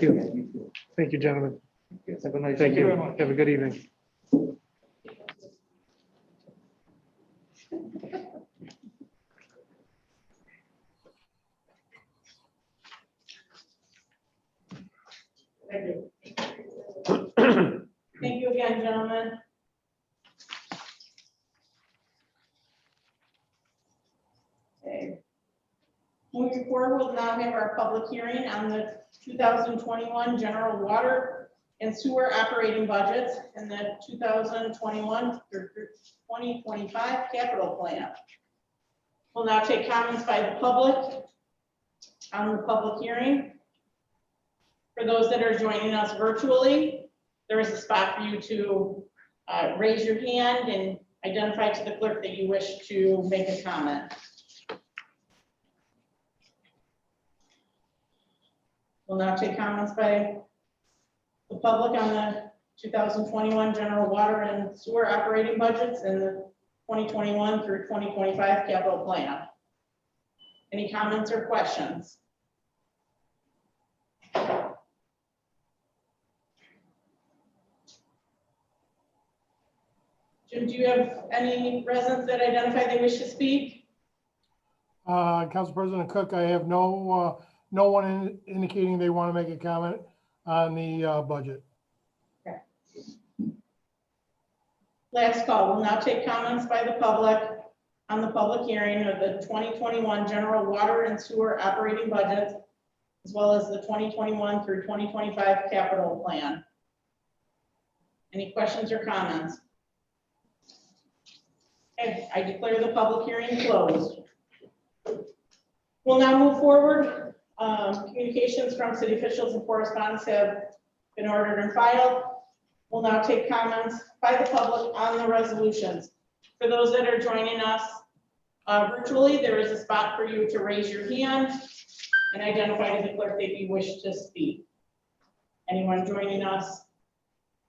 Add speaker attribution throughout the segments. Speaker 1: Thank you. Thank you, gentlemen. Have a nice. Thank you. Have a good evening.
Speaker 2: Thank you again, gentlemen. Okay. Moving forward, we'll now have our public hearing on the 2021 general water and sewer operating budgets and the 2021 or 2025 capital plan. We'll now take comments by the public on the public hearing. For those that are joining us virtually, there is a spot for you to uh, raise your hand and identify to the clerk that you wish to make a comment. We'll now take comments by the public on the 2021 general water and sewer operating budgets and the 2021 through 2025 capital plan. Any comments or questions? Jim, do you have any residents that identify they wish to speak?
Speaker 3: Uh, Council President Cook, I have no, uh, no one in- indicating they want to make a comment on the uh, budget.
Speaker 2: Last call, we'll now take comments by the public on the public hearing of the 2021 general water and sewer operating budgets, as well as the 2021 through 2025 capital plan. Any questions or comments? Okay, I declare the public hearing closed. We'll now move forward. Um, Communications from city officials and correspondents have been ordered and filed. We'll now take comments by the public on the resolutions. For those that are joining us uh, virtually, there is a spot for you to raise your hand and identify to the clerk that you wish to speak. Anyone joining us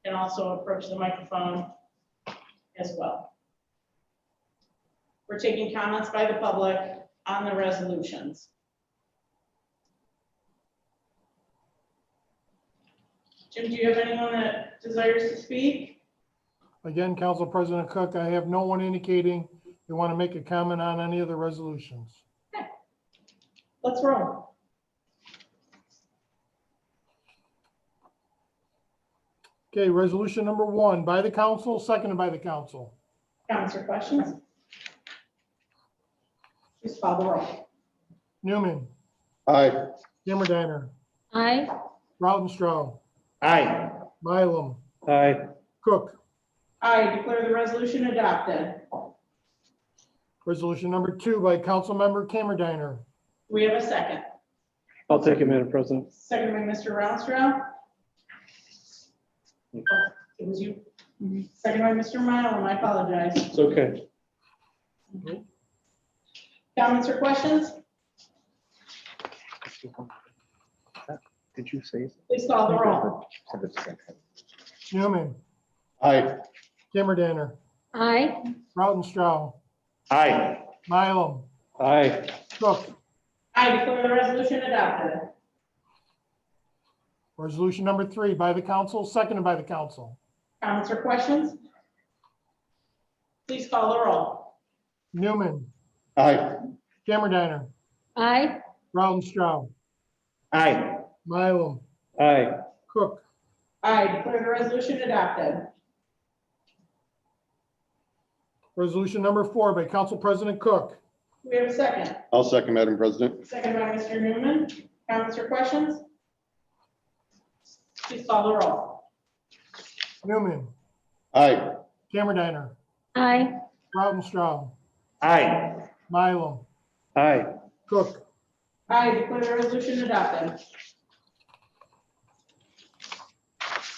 Speaker 2: can also approach the microphone as well. We're taking comments by the public on the resolutions. Jim, do you have anyone that desires to speak?
Speaker 3: Again, Council President Cook, I have no one indicating they want to make a comment on any of the resolutions.
Speaker 2: Let's roll.
Speaker 3: Okay, resolution number one by the council, seconded by the council.
Speaker 2: Comments or questions? Please call the roll.
Speaker 3: Newman,
Speaker 4: Aye.
Speaker 3: Kimmerdiner,
Speaker 5: Aye.
Speaker 3: Rautenstrau,
Speaker 4: Aye.
Speaker 3: Mylum,
Speaker 1: Aye.
Speaker 3: Cook.
Speaker 2: I declare the resolution adopted.
Speaker 3: Resolution number two by Councilmember Kimmerdiner.
Speaker 2: Do we have a second?
Speaker 1: I'll take it, Madam President.
Speaker 2: Second by Mr. Rounstrau. Oh, It was you. Second by Mr. Mylum, I apologize.
Speaker 1: It's okay.
Speaker 2: Comments or questions?
Speaker 6: Did you say?
Speaker 2: Please call the roll.
Speaker 3: Newman,
Speaker 4: Aye.
Speaker 3: Kimmerdiner,
Speaker 5: Aye.
Speaker 3: Rautenstrau,
Speaker 4: Aye.
Speaker 3: Mylum,
Speaker 1: Aye.
Speaker 3: Cook.
Speaker 2: I declare the resolution adopted.
Speaker 3: Resolution number three by the council, seconded by the council.
Speaker 2: Comments or questions? Please call the roll.
Speaker 3: Newman,
Speaker 4: Aye.
Speaker 3: Kimmerdiner,
Speaker 5: Aye.
Speaker 3: Rautenstrau,
Speaker 4: Aye.
Speaker 3: Mylum,
Speaker 1: Aye.
Speaker 3: Cook.
Speaker 2: I declare the resolution adopted.
Speaker 3: Resolution number four by Council President Cook.
Speaker 2: Do we have a second?
Speaker 4: I'll second, Madam President.
Speaker 2: Second by Mr. Newman. Comments or questions? Please call the roll.
Speaker 3: Newman,
Speaker 4: Aye.
Speaker 3: Kimmerdiner,
Speaker 5: Aye.
Speaker 3: Rautenstrau,
Speaker 4: Aye.
Speaker 3: Mylum,
Speaker 1: Aye.
Speaker 3: Cook.
Speaker 2: I declare the resolution adopted.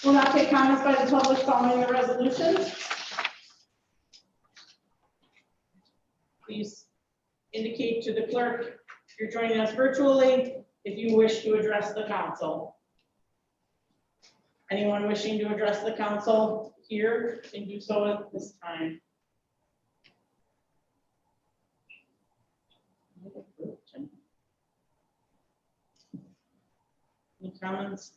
Speaker 2: We'll now take comments by the public following the resolutions. Please indicate to the clerk if you're joining us virtually if you wish to address the council. Anyone wishing to address the council here can do so at this time. Any comments